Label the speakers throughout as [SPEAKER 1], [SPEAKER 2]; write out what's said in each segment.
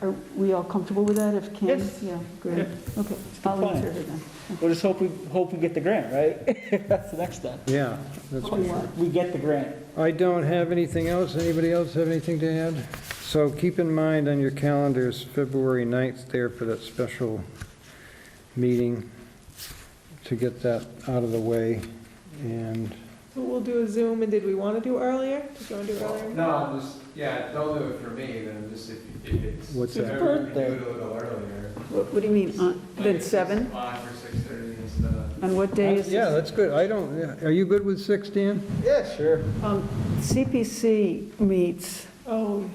[SPEAKER 1] Are we all comfortable with that if Kim?
[SPEAKER 2] Yes.
[SPEAKER 1] Yeah, great. Okay, I'll
[SPEAKER 2] compliant.
[SPEAKER 1] answer her then.
[SPEAKER 2] We'll just hope we, hope we get the grant, right? That's the next step.
[SPEAKER 3] Yeah, that's
[SPEAKER 1] What we want.
[SPEAKER 2] We get the grant.
[SPEAKER 3] I don't have anything else. Anybody else have anything to add? So keep in mind on your calendars, February 9th there for that special meeting to get that out of the way. And
[SPEAKER 4] So we'll do a Zoom, and did we want to do earlier? Did you want to do earlier?
[SPEAKER 5] No, I'm just, yeah, don't do it for me, then just if, if it's.
[SPEAKER 3] What's
[SPEAKER 5] if
[SPEAKER 3] that?
[SPEAKER 5] everyone can
[SPEAKER 2] Birthday.
[SPEAKER 5] Do it a little earlier.
[SPEAKER 1] What what do you mean, on-
[SPEAKER 5] Like
[SPEAKER 1] then
[SPEAKER 5] if it's
[SPEAKER 1] 7?
[SPEAKER 5] Five or six thirty instead of.
[SPEAKER 1] On what day is this?
[SPEAKER 3] Yeah, that's good. I don't, yeah. are you good with 6, Dan?
[SPEAKER 2] Yeah, sure.
[SPEAKER 1] Um, CPC meets
[SPEAKER 4] Oh,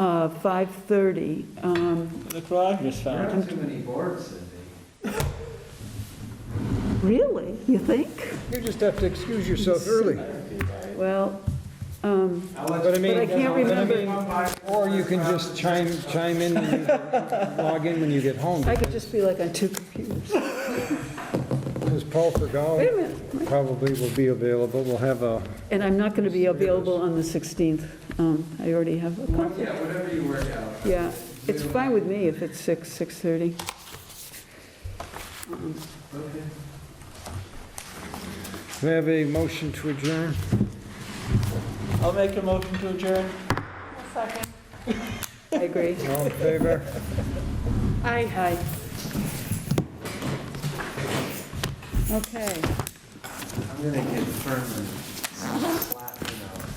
[SPEAKER 1] uh, 5:30. Um,
[SPEAKER 2] That's what I just
[SPEAKER 5] You're
[SPEAKER 2] found.
[SPEAKER 5] on too many boards, Cindy.
[SPEAKER 1] Really? You think?
[SPEAKER 3] You just have to excuse yourself early.
[SPEAKER 1] Well, um,
[SPEAKER 5] I'll let
[SPEAKER 3] But I
[SPEAKER 5] you-
[SPEAKER 3] mean.
[SPEAKER 1] But I can't remember.
[SPEAKER 3] Or you can just chime, chime in and you can log in when you get home.
[SPEAKER 1] I could just be like on two computers.
[SPEAKER 3] Because Paul
[SPEAKER 1] Wait a
[SPEAKER 3] Fergal
[SPEAKER 1] minute.
[SPEAKER 3] probably will be available. We'll have a,
[SPEAKER 1] And I'm not going to be available on the 16th. Um, I already have a
[SPEAKER 5] Well,
[SPEAKER 1] conflict.
[SPEAKER 5] Yeah, whatever you work out.
[SPEAKER 1] Yeah, it's fine with me if it's 6, 6:30.
[SPEAKER 5] Okay.
[SPEAKER 3] we have a motion to adjourn.
[SPEAKER 2] I'll make a motion to adjourn.
[SPEAKER 1] I agree.
[SPEAKER 3] All in favor?
[SPEAKER 1] Aye. Aye. Okay.
[SPEAKER 5] I'm gonna get firmly slapped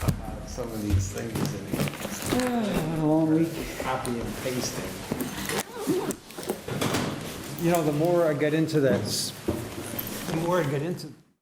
[SPEAKER 5] about some of these things in here.
[SPEAKER 2] What a long week.
[SPEAKER 5] Copy and pasting.
[SPEAKER 3] You know, the more I get into that, s- the more I get into